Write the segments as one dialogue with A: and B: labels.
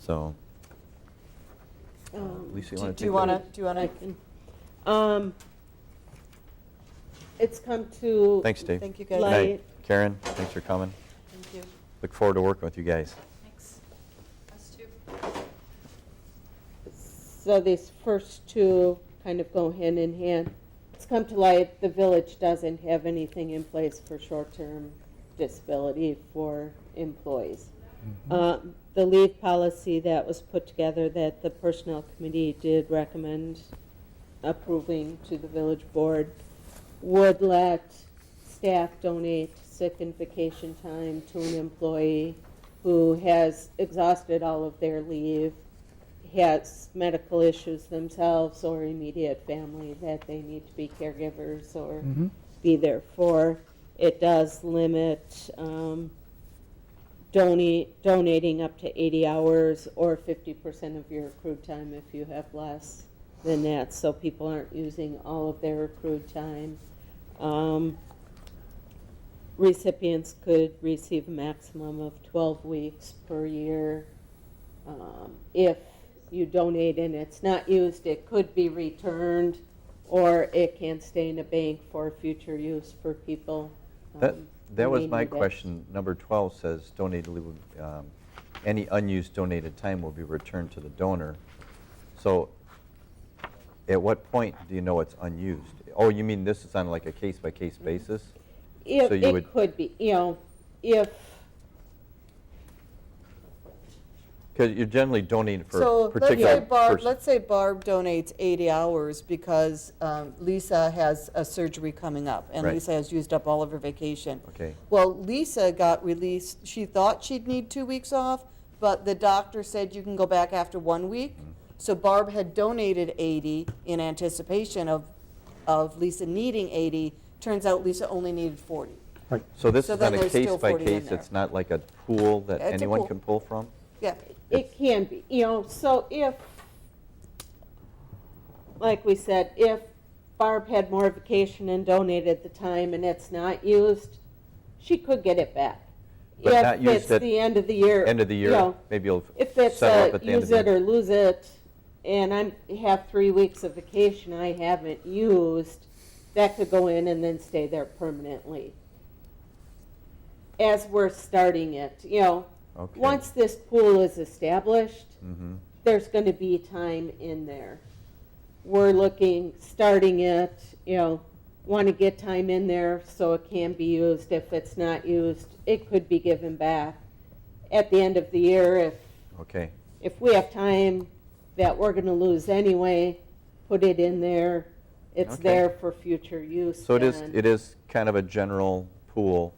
A: So,
B: Um,
A: Lisa, you wanna
B: do- Do you
A: take that?
B: want to, do you want
C: I
B: to,
C: can- um, It's come to.
A: thanks, Dave.
B: thank you
A: Good
B: guys.
A: night.
C: Light.
A: Karen, thanks for coming.
B: Thank you.
A: Look forward to working with you guys.
D: Thanks. Us too.
C: So these first two kind of go hand in hand. It's come to light, the village doesn't have anything in place for short-term disability for employees. Um, The leave policy that was put together that the personnel committee did recommend approving to the village board would let staff donate sick and vacation time to an employee who has exhausted all of their leave, has medical issues themselves or immediate family that they need to be caregivers or
E: Mhm.
C: be there for. It does limit um, donate, donating up to 80 hours or 50% of your accrued time if you have less than that, so people aren't using all of their accrued time. Um, Recipients could receive a maximum of 12 weeks per year. Um, If you donate and it's not used, it could be returned, or it can stay in a bank for future use for people.
A: That,
C: um, who
A: that was
C: may
A: my
C: need it.
A: question. Number 12 says donated, leave will- um, any unused donated time will be returned to the donor. So at what point do you know it's unused? Oh, you mean this is on like a case-by-case basis?
C: If,
A: So you
C: it
A: would-
C: could be, you know, if,
A: Because you're generally donating for
B: So let's say
A: particular
B: Barb,
A: person.
B: let's say Barb donates 80 hours because um, Lisa has a surgery coming up and
A: Right.
B: Lisa has used up all of her vacation.
A: Okay.
B: Well, Lisa got released, she thought she'd need two weeks off, but the doctor said you can go back after one week.
A: Mm-hmm.
B: So Barb had donated 80 in anticipation of, of Lisa needing 80. Turns out Lisa only needed 40.
E: Right.
A: So this
B: so
A: is
B: then
A: on a
B: there's still 40 in
A: case-by-case,
B: there.
A: it's not like a pool that
B: It's a
A: anyone
B: pool.
A: can pull from?
B: Yeah,
C: it can be, you know, so if, like we said, if Barb had more vacation and donated the time and it's not used, she could get it back.
A: But not used at
C: If it's the end of the year.
A: End of the
C: you
A: year,
C: know,
A: maybe you'll
C: If it's
A: settle up
C: a
A: at the end of
C: use
A: the
C: it or
A: year.
C: lose it, and I'm, have three weeks of vacation I haven't used, that could go in and then stay there permanently. As we're starting it, you know,
A: Okay.
C: once this pool is established,
A: Mhm.
C: there's gonna be time in there. We're looking, starting it, you know, wanna get time in there so it can be used. If it's not used, it could be given back. At the end of the year, if,
A: Okay,
C: if we have time that we're gonna lose anyway, put it in there. It's
A: Okay.
C: there for future use.
A: so it is,
C: then.
A: it is kind of a general pool,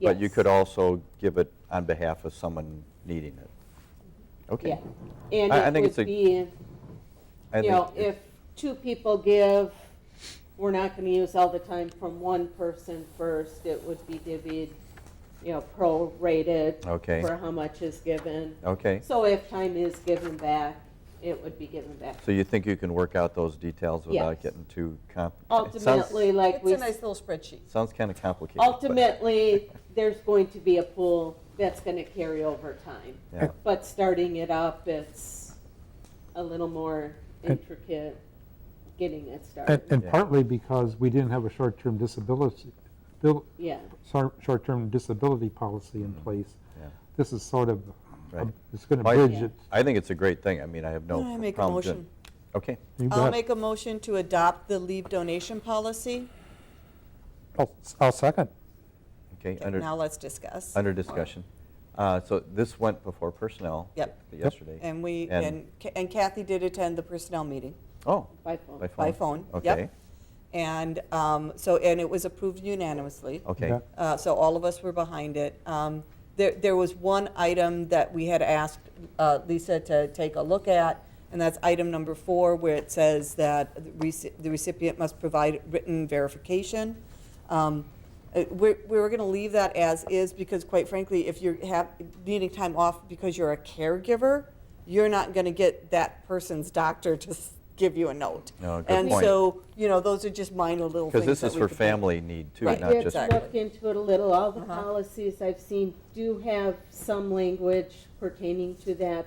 A: but you
C: Yes.
A: could also give it on behalf of someone needing it.
C: Yeah,
A: Okay.
C: and
A: I- I think
C: it
A: it's a-
C: would be,
A: I
C: you
A: think
C: know,
A: it-
C: if two people give, we're not gonna use all the time from one person first, it would be divvied, you know, prorated.
A: Okay.
C: For how much is given.
A: Okay,
C: So if time is given back, it would be given back.
A: so you think you can work out those details without
C: Yes.
A: getting too comp? it sounds-
C: Ultimately, like
B: it's
C: we,
B: a nice little spreadsheet.
A: Sounds kind of complicated. but-
C: ultimately, there's going to be a pool that's gonna carry over time.
A: Yeah.
C: But starting it up, it's a little more
E: And-
C: intricate getting it
E: And,
C: started.
E: and
A: Yeah.
E: partly because we didn't have a short-term disability, bill-
C: Yeah,
E: shor- short-term disability policy in place.
A: Mm-hmm. Yeah.
E: This is sort of, a-
A: Right.
E: it's going to
A: Mike?
E: bridge
C: Yeah.
E: it.
A: I think it's a great thing, I mean, I have no
B: Can I make a
A: problem doing-
B: motion?
A: Okay,
E: You
B: I'll
E: got-
B: make a motion to adopt the leave donation policy.
E: I'll- I'll second.
A: okay,
B: Okay,
A: under,
B: Now let's discuss.
A: under discussion. Uh, So this went before personnel.
B: Yep.
A: Yesterday.
B: And we,
A: And-
B: and Ca- and Kathy did attend the personnel meeting
A: Oh,
C: by phone.
A: by phone?
B: by phone. Yep.
A: Okay,
B: And um, so, and it was approved unanimously.
A: okay.
E: Yeah.
B: Uh, So all of us were behind it. Um, There, there was one item that we had asked uh, Lisa to take a look at, and that's item number four, where it says that the reci- the recipient must provide written verification. Um, uh, We're, we were going to leave that as is, because quite frankly, if you're have, needing time off because you're a caregiver, you're not going to get that person's doctor to s- give you a note.
A: No, good
B: And
A: point.
B: so, you know, those are just minor little things.
A: Because this
B: that
A: is
B: we
A: for
B: could think.
A: family need too,
B: Right.
A: not
C: I
A: just,
C: did
B: Exactly.
C: look into it a little. All the
B: Uh-huh.
C: policies I've seen do have some language pertaining to that